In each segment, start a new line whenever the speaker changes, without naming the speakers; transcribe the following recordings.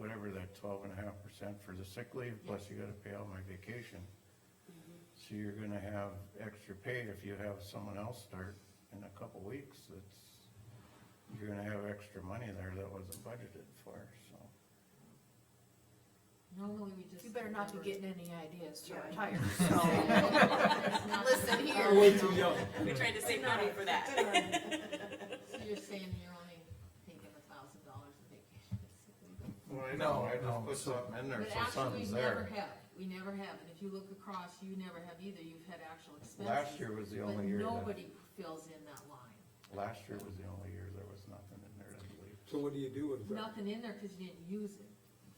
cover that twelve and a half percent for the sick leave, plus you gotta pay out my vacation.
Mm-hmm.
So you're gonna have extra pay if you have someone else start in a couple weeks, that's, you're gonna have extra money there that wasn't budgeted for, so.
Normally we just.
You better not be getting any ideas to
Yeah.
retire,
Not-
Listen here.
We tried to save money for that.
So you're saying you're only thinking a thousand dollars of vacation.
Well, I
No,
know, I
no,
just put
so-
something in there,
But
so
actually,
something's
we
there.
never have, we never have, and if you look across, you never have either, you've had actual expenses.
Last year was the only year
But
that,
nobody fills in that line,
last year was the only year there was nothing in there, I believe.
So what do you do with that?
nothing in there because you didn't use it,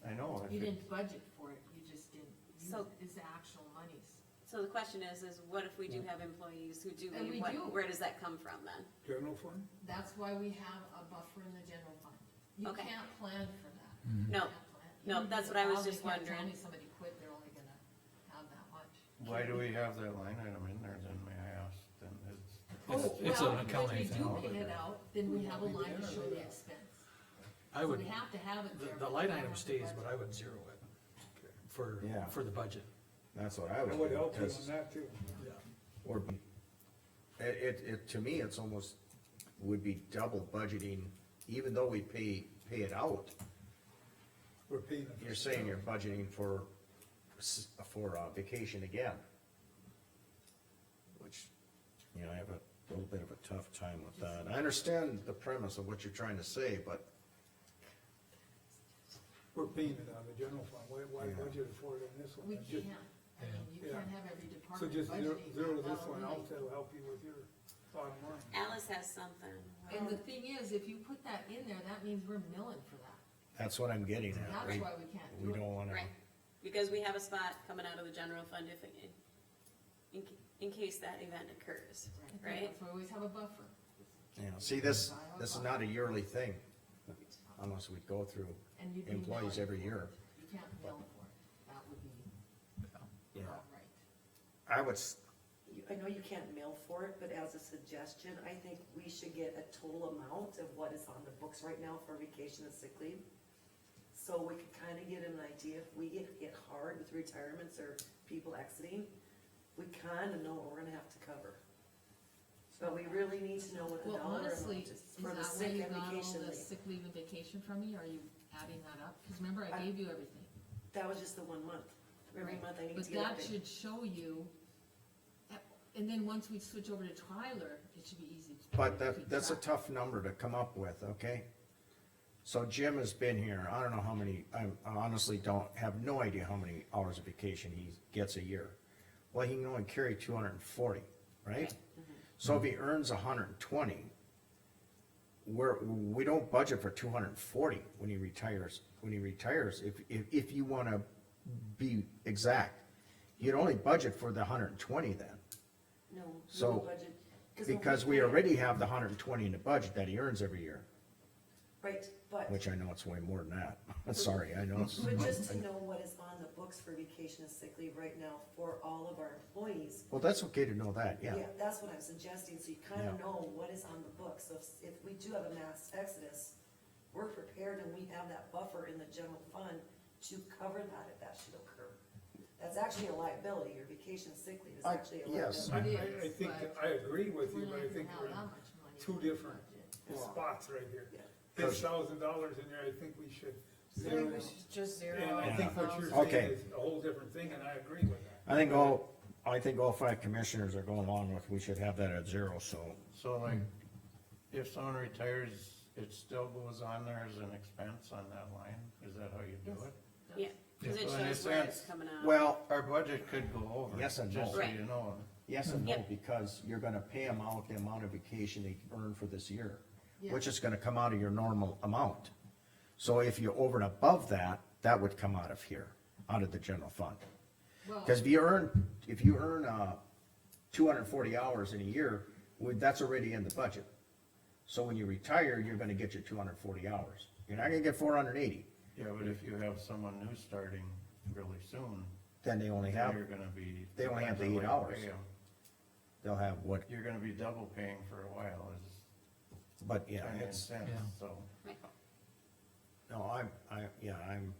I know, if it,
you didn't budget for it, you just didn't use
So-
it, it's actual monies.
So the question is, is what if we do have employees who do
And we
leave,
do.
what, where does that come from then?
General fund?
That's why we have a buffer in the general fund, you
Okay.
can't plan for that.
No, No, that's what I was just
Tell
wondering.
me somebody quit, they're only gonna have that much.
why do we have that line item in there then, may I ask, then it's.
Oh,
it's
well,
an accounting thing.
If we do pay it out, then we have a line to show the expense.
I would,
So we have to have it
the,
there.
the
but
line
we
item
have to
stays,
budget.
but I would zero it for,
Yeah.
for the budget.
That's what I
I would
would do,
help you
'cause-
on that too.
or, be- it, it, it, to me, it's almost, would be double budgeting, even though we pay, pay it out,
We're paying. it.
you're saying you're budgeting for, s- for uh, vacation again. Which, you know, I have a little bit of a tough time with that, I understand the premise of what you're trying to say, but
We're paying it out of the general fund. Why, why
Yeah.
budget it for it in this one?
We
Just-
can't, I mean, you
Yeah.
can't have every
So
department budgeting.
just zero, zero this
That'll
one
really-
out, that'll help you with your bottom line.
Alice has something.
And the thing is, if you put that in there, that means we're milling for that,
that's what I'm getting at,
that's
we,
why we can't do it.
we don't wanna,
Right, because we have a spot coming out of the general fund if, it- in, in case that event occurs,
Right,
right?
That's why we always have a buffer.
you know, see, this, this is not a yearly thing, unless we go through
And you'd be
employees
milling
every
for
year.
it. You can't mill for it, that would be
Yeah.
not right.
I would, s-
You- I know you can't mail for it, but as a suggestion, I think we should get a total amount of what is on the books right now for vacation and sick leave. So we could kind of get an idea if we get hit hard with retirements or people exiting, we kind of know what we're gonna have to cover. But we really need to know what the
Well,
dollar amount
honestly,
is
is
for the
that where
sick
you
and
got all
vacation
the
leave.
sick leave and vacation from me, are you adding that up? Cause remember, I
I-
gave you everything.
That was just the one month. Every
Right.
month I need
But
to get a
that
big.
should show you, eh, and then once we switch over to Tyler, it should be easy. to-
But
to keep
that, that's a
track.
tough number to come up with, okay? So Jim has been here, I don't know how many, I honestly don't, have no idea how many hours of vacation he gets a year. Well, he can only carry two hundred and forty, right? So if he earns hundred and twenty, we're, we don't budget for two hundred and forty when he retires, when he retires, if, if, if you wanna be exact. You'd only budget for the hundred and twenty then.
No, no
So,
budget. when
Because we
pay it-
already have the hundred and twenty in the budget that he earns every year,
Right, but,
which I know it's way more than that. I'm sorry, I know. it's-
but just to know what is on the books for vacation and sick leave right now for all of our employees.
Well, that's okay to know that, yeah.
That's what I'm suggesting, so you kind
Yeah.
of know what is on the books, so if- if we do have a mass exodus, we're prepared and we have that buffer in the general fund to cover that if that should occur. That's actually a liability, your vacation sick leave is
I-
actually a
yes.
liability.
It
I, I- I
is,
think,
but
I agree with
We're
you,
not
but I
gonna
think
have
we're in
that much money
two
in the
different
budget.
spots right here.
Yeah.
This thousand dollars in there, I think we should zero it.
just
And I think what you're
Okay.
saying is a whole different thing, and I agree with that.
I think all, I think all five commissioners are going along with, we should have that at zero, so.
So like,
Hmm.
if someone retires, it still goes on there as an expense on that line, is that how you do
Yes.
it?
Yeah, cause it
So in a
shows where it's
sense,
coming out.
Well,
Our budget could go over.
Yes and no.
Just so
Right.
you know,
yes and no,
Yep.
because you're gonna pay him out the amount of vacation he earned for this year,
Yeah.
which is gonna come out of your normal amount. So if you're over and above that, that would come out of here, out of the general fund.
Well,
Cause if you earn, if you earn, uh, two hundred and forty hours in a year, well, that's already in the budget. So when you retire, you're gonna get your two hundred and forty hours. You're not gonna get four hundred and eighty,
yeah, but if you have someone new starting really soon,
then they only
then
have,
you're gonna be.
They only have the
depends on what you
$8.
pay 'em.
they'll have what,
You're gonna be double paying for a while is
but yeah,
kind of
it's,
intense, so.
no, I'm, I, yeah, I'm